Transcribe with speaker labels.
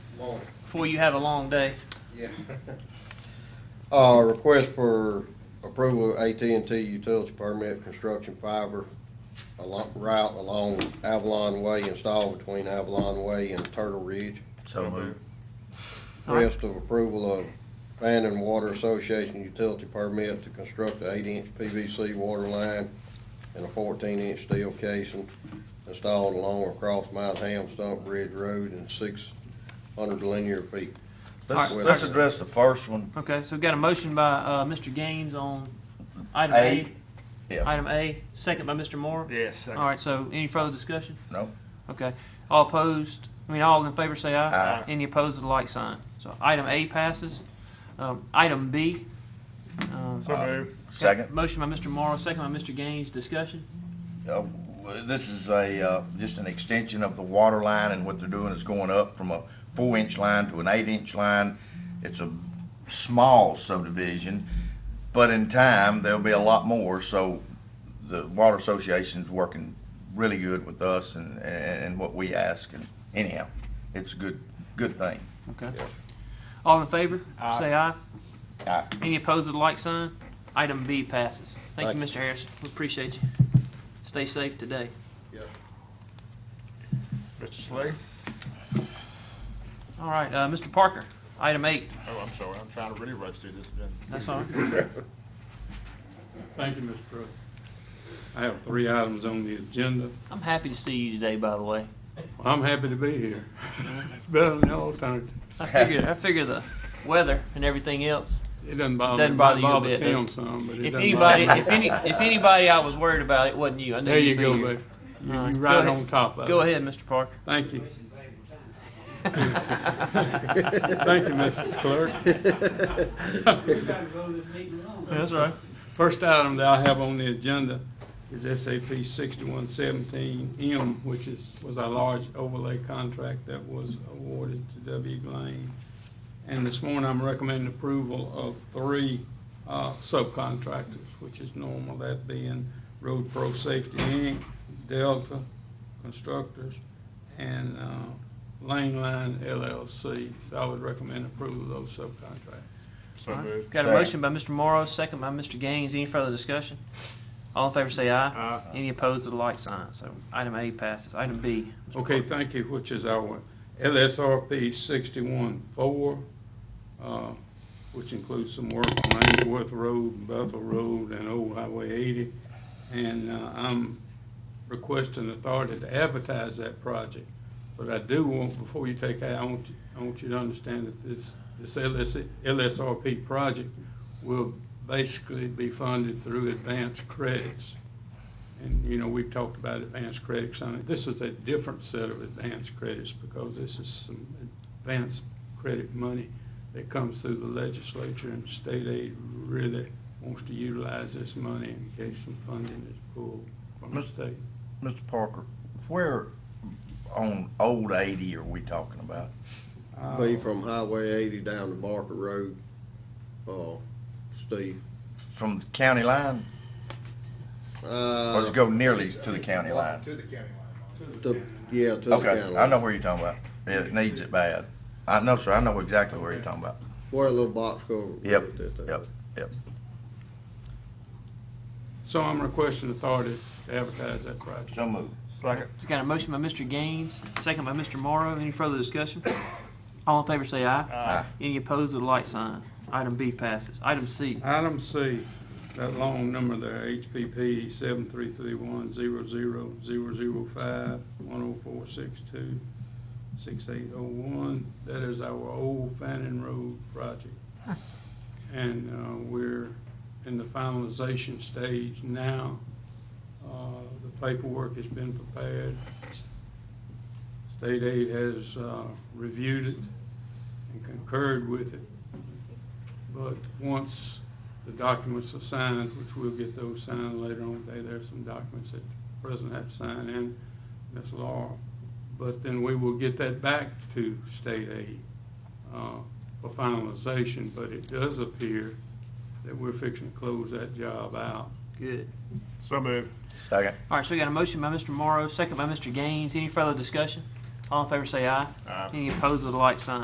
Speaker 1: morning.
Speaker 2: before you have a long day.
Speaker 1: Yeah.
Speaker 3: Uh, request for approval of AT&T utility permit construction fiber along, route along Avalon Way installed between Avalon Way and Turtle Ridge.
Speaker 4: So moved.
Speaker 3: Request of approval of Fannin Water Association utility permit to construct an eight-inch PVC water line and a fourteen-inch steel casing installed along or across Mount Ham Stump Ridge Road and six hundred linear feet.
Speaker 4: Let's,
Speaker 3: Alright.
Speaker 4: let's address the first one.
Speaker 2: Okay, so we've got a motion by uh, Mr. Gaines on item
Speaker 4: A.
Speaker 2: A.
Speaker 4: Yeah,
Speaker 2: Item A, second by Mr. Moore.
Speaker 5: Yes.
Speaker 2: All right, so any further discussion?
Speaker 4: no,
Speaker 2: Okay. All opposed, I mean, all in favor say aye.
Speaker 4: Aye.
Speaker 2: Any opposed with a like sign. So item A passes. Um, Item B. um,
Speaker 5: So moved.
Speaker 4: second.
Speaker 2: Motion by Mr. Morrow, second by Mr. Gaines, discussion.
Speaker 4: Uh, w- This is a, uh, just an extension of the water line and what they're doing is going up from a four inch line to an eight inch line. It's a small subdivision, but in time, there'll be a lot more, so the Water Association's working really good with us and, and and what we ask, and anyhow, it's a good, good thing.
Speaker 2: Okay. All in favor,
Speaker 5: Aye.
Speaker 2: say aye.
Speaker 4: Aye.
Speaker 2: Any opposed with a like sign? Item B passes. Thank you,
Speaker 3: Thank
Speaker 2: Mr. Harrison. We appreciate you. Stay safe today.
Speaker 5: Mr. Slade?
Speaker 2: All right, uh, Mr. Parker, item eight.
Speaker 5: Oh, I'm sorry. I'm trying to really rush through this. Ben.
Speaker 2: That's all right.
Speaker 6: Thank you, Mr. Pruitt. I have three items on the agenda.
Speaker 2: I'm happy to see you today, by the way.
Speaker 6: I'm happy to be here. It's Better than the alternative.
Speaker 2: I figure, I figure the weather and everything else.
Speaker 6: It doesn't bother,
Speaker 2: Doesn't
Speaker 6: it
Speaker 2: bother you a
Speaker 6: bother
Speaker 2: bit, does
Speaker 6: Tim
Speaker 2: it?
Speaker 6: some, but it
Speaker 2: If
Speaker 6: doesn't bother
Speaker 2: anybody,
Speaker 6: me.
Speaker 2: if any, if anybody I was worried about, it wasn't you. I knew
Speaker 6: There you
Speaker 2: you'd be
Speaker 6: go,
Speaker 2: here.
Speaker 6: baby. You
Speaker 2: All right,
Speaker 6: you
Speaker 2: go
Speaker 6: right
Speaker 2: ahead.
Speaker 6: on top of it.
Speaker 2: Go ahead, Mr. Parker.
Speaker 6: Thank you. Thank you, Mrs. Clerk.
Speaker 2: That's right.
Speaker 6: First item that I have on the agenda is SAP sixty-one seventeen M, which is, was a large overlay contract that was awarded to W. Lane. And this morning, I'm recommending approval of three uh, subcontractors, which is normal, that being Road Pro Safety Inc., Delta Constructors, and uh, Lane Line LLC. So I would recommend approval of those subcontractors.
Speaker 5: So moved.
Speaker 2: Got a motion
Speaker 4: Second.
Speaker 2: by Mr. Morrow, second by Mr. Gaines. Any further discussion? All in favor say aye.
Speaker 5: Uh,
Speaker 2: Any opposed to the like sign? So item A passes. Item B. Mr.
Speaker 6: Okay,
Speaker 2: Parker.
Speaker 6: thank you, which is our LSRP sixty-one four, uh, which includes some work on Ainsworth Road, Bethel Road, and Old Highway eighty. And, uh, I'm requesting authority to advertise that project. But I do want, before you take that, I want, you- I want you to understand that this, this LS, LSRP project will basically be funded through advanced credits. And, you know, we've talked about advanced credits on it. This is a different set of advanced credits because this is some advanced credit money that comes through the legislature and state aid really wants to utilize this money in case some funding is pulled from the
Speaker 4: Mr.
Speaker 6: state.
Speaker 4: Mr. Parker, where on Old Eighty are we talking about? Um,
Speaker 3: Be from Highway eighty down to Barker Road, uh, Steve.
Speaker 4: From the county line? Or does
Speaker 3: Uh,
Speaker 4: it go nearly to the county line?
Speaker 1: To the county line.
Speaker 3: to, yeah, to the county
Speaker 4: Okay, I know
Speaker 3: line.
Speaker 4: where you're talking about. It needs it bad. I know, sir, I know exactly where you're talking about.
Speaker 3: Where a little box cover.
Speaker 4: Yep,
Speaker 3: with it, uh,
Speaker 4: yep, yep.
Speaker 6: So I'm requesting authority to advertise that project.
Speaker 4: So moved.
Speaker 5: second.
Speaker 2: It's got a motion by Mr. Gaines, second by Mr. Morrow. Any further discussion? All in favor say aye.
Speaker 4: Aye.
Speaker 2: Any opposed with a like sign? Item B passes. Item C.
Speaker 6: Item C, that long number there, HPP seven three three one zero zero zero zero five one oh four six two six eight oh one, that is our old Fannin Road project. And, uh, we're in the finalization stage now. Uh, the paperwork has been prepared. State aid has, uh, reviewed it and concurred with it. But once the documents are signed, which we'll get those signed later on today, there's some documents that the president had to sign in, Ms. Laura. But then we will get that back to state aid uh, for finalization, but it does appear that we're fixing to close that job out.
Speaker 2: Good.
Speaker 5: So moved.
Speaker 4: Second.
Speaker 2: All right, so we got a motion by Mr. Morrow, second by Mr. Gaines. Any further discussion? All in favor say aye.
Speaker 5: Aye.
Speaker 2: Any opposed with a like sign?